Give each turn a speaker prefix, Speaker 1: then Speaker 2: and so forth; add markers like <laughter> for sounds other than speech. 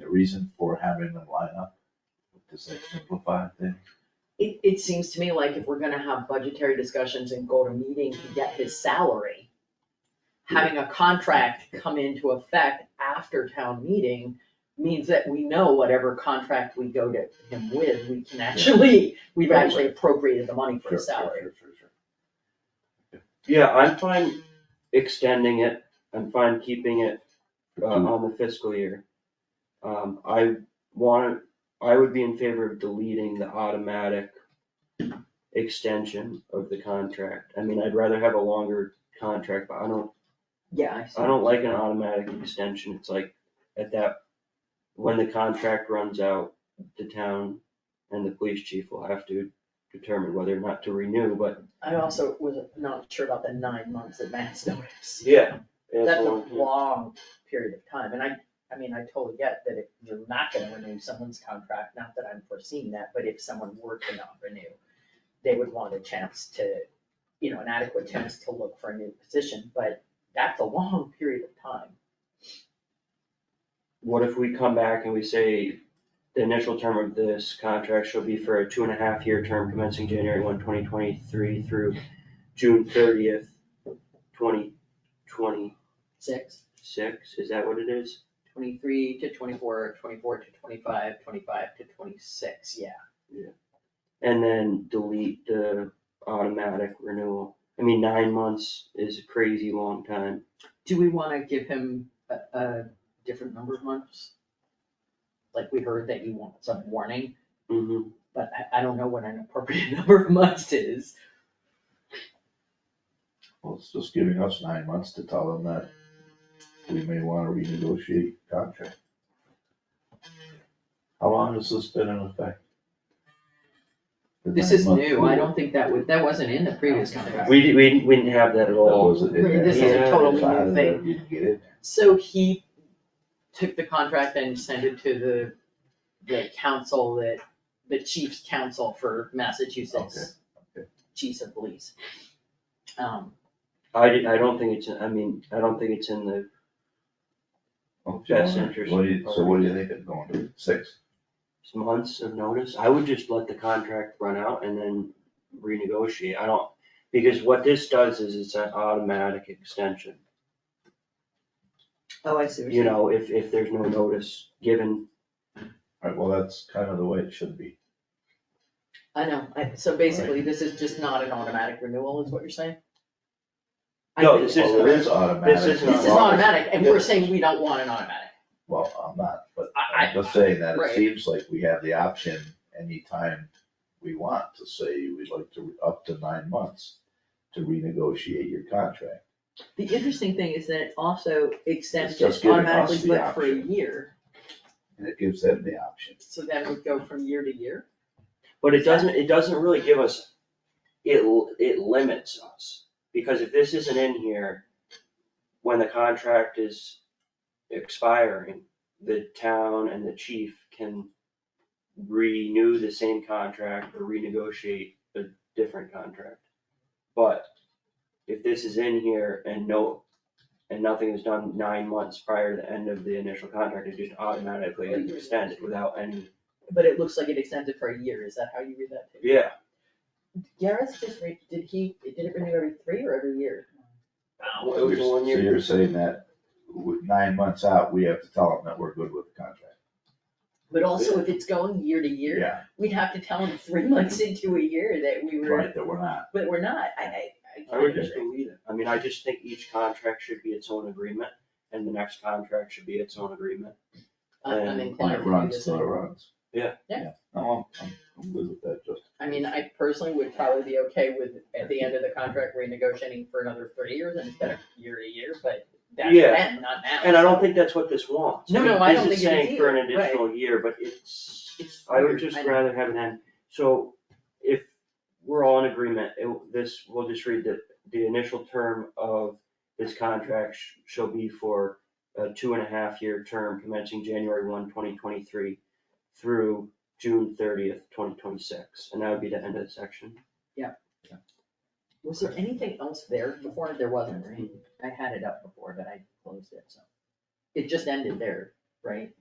Speaker 1: reason for having them line up? Does that simplify things?
Speaker 2: It, it seems to me like if we're gonna have budgetary discussions and go to meeting to get his salary, having a contract come into effect after town meeting means that we know whatever contract we go to him with, we can actually, we've actually appropriated the money for
Speaker 1: Sure,
Speaker 2: his
Speaker 1: sure,
Speaker 2: salary.
Speaker 1: sure, sure, sure.
Speaker 3: Yeah, I'm fine extending it, I'm fine keeping it uh, on the fiscal year. Um, I want, I would be in favor of deleting the automatic extension of the contract. I mean, I'd rather have a longer contract, but I don't,
Speaker 2: Yeah, I see.
Speaker 3: I don't like an automatic extension, it's like at that, when the contract runs out, the town and the police chief will have to determine whether or not to renew, but.
Speaker 2: I also was not sure about the nine months advance <laughs> notice.
Speaker 3: Yeah.
Speaker 2: That's a long period of time, and I, I mean, I totally get that if you're not gonna renew someone's contract, not that I'm foreseeing that, but if someone were to not renew, they would want a chance to, you know, an adequate chance to look for a new position, but that's a long period of time.
Speaker 3: What if we come back and we say, the initial term of this contract shall be for a two and a half year term commencing January one, twenty twenty-three through June thirtieth, twenty twenty-six,
Speaker 2: Six,
Speaker 3: is that what it is?
Speaker 2: twenty-three to twenty-four, twenty-four to twenty-five, twenty-five to twenty-six, yeah.
Speaker 3: And then delete the automatic renewal. I mean, nine months is a crazy long time.
Speaker 2: Do we wanna give him a, a different number of months? Like we heard that you want some warning.
Speaker 3: Mhm.
Speaker 2: but I, I don't know what an appropriate <laughs> number of months is.
Speaker 1: Well, it's just giving us nine months to tell them that we may wanna renegotiate contract. How long has this been in effect? The
Speaker 2: This is
Speaker 1: nine-month
Speaker 2: new, I
Speaker 1: rule.
Speaker 2: don't think that would, that wasn't in the previous contract.
Speaker 3: We, we we didn't have that at
Speaker 1: That
Speaker 3: all.
Speaker 1: wasn't Oh, in there.
Speaker 2: This
Speaker 3: is a
Speaker 1: Yeah,
Speaker 2: totally
Speaker 1: it's out
Speaker 2: new
Speaker 1: of there. You didn't get it.
Speaker 2: So he took the contract and sent it to the, the council that, the chief's council for Massachusetts
Speaker 1: Okay, okay.
Speaker 2: chiefs of police. Um,
Speaker 3: I, did- I don't think it's, I mean, I don't think it's in the,
Speaker 1: Okay,
Speaker 3: Oh, That's
Speaker 1: well,
Speaker 3: interesting.
Speaker 1: What do you, so what do you think it's going to, six?
Speaker 3: months of notice, I would just let the contract run out and then renegotiate, I don't, because what this does is it's an automatic extension.
Speaker 2: oh, I see. what
Speaker 3: You know, if, if there's no notice given,
Speaker 1: Alright, well, that's kind of the way it should be.
Speaker 2: I know, I, so basically, this is just not an automatic renewal, is what you're saying? I
Speaker 3: No,
Speaker 2: think-
Speaker 3: This is-
Speaker 1: Well, it is automatic.
Speaker 3: this is not-
Speaker 2: This is automatic, and we're
Speaker 1: Yeah.
Speaker 2: saying we don't want an automatic.
Speaker 1: Well, I'm not, but
Speaker 2: I, I,
Speaker 1: I'm just saying that
Speaker 2: Right.
Speaker 1: it seems like we have the option anytime we want to say we'd like to, up to nine months to renegotiate your contract.
Speaker 2: The interesting thing is that it also extends
Speaker 1: It's just
Speaker 2: it
Speaker 1: giving
Speaker 2: automatically,
Speaker 1: us the
Speaker 2: but for a
Speaker 1: option.
Speaker 2: year,
Speaker 1: And it gives them the option.
Speaker 2: so then we go from year to year.
Speaker 3: but it doesn't, it doesn't really give us, it, l- it limits us. Because if this isn't in here, when the contract is expiring, the town and the chief can renew the same contract or renegotiate a different contract. But if this is in here and no, and nothing is done nine months prior to the end of the initial contract, it just automatically gets extended without any,
Speaker 2: But it looks like it extends it for a year, is that how you read that? too?
Speaker 3: yeah,
Speaker 2: Gareth just re, did he, did it renew every three or every year?
Speaker 3: Well, it was a one
Speaker 1: So
Speaker 3: year.
Speaker 1: you're saying that with nine months out, we have to tell them that we're good with the contract.
Speaker 2: But also, if it's going year to year,
Speaker 1: Yeah,
Speaker 2: we'd have to tell him three <laughs> months into a year that we were,
Speaker 1: right, that we're not.
Speaker 2: but we're not, I, I, I
Speaker 3: I
Speaker 2: can't
Speaker 3: would just
Speaker 2: understand.
Speaker 3: delete it. I mean, I just think each contract should be its own agreement and the next contract should be its own agreement.
Speaker 2: I'm- I'm
Speaker 3: And-
Speaker 1: When
Speaker 2: inclined
Speaker 1: it
Speaker 2: to do
Speaker 1: runs,
Speaker 2: this.
Speaker 1: till it runs.
Speaker 3: Yeah.
Speaker 2: Yeah.
Speaker 1: No, I'm, I'm- I'm good with that, Justin.
Speaker 2: I mean, I personally would probably be okay with, at the end of the contract, renegotiating for another three years instead of year to year, but that's
Speaker 3: Yeah.
Speaker 2: then, not now.
Speaker 3: And I don't think that's what this wants.
Speaker 2: No, no, I don't
Speaker 3: This is
Speaker 2: think it is
Speaker 3: saying for an
Speaker 2: either, right.
Speaker 3: additional year, but it's,
Speaker 2: It's
Speaker 3: I would
Speaker 2: weird,
Speaker 3: just
Speaker 2: I know.
Speaker 3: rather have an end. So if we're all in agreement, it- this, we'll just read that the initial term of this contract sh- shall be for a two and a half year term commencing January 1, 2023, through June thirtieth, twenty twenty-six. And that would be the end of the section.
Speaker 2: Was there anything else there before? There wasn't, right? I had it up before, but I closed it, so. It just ended there, right?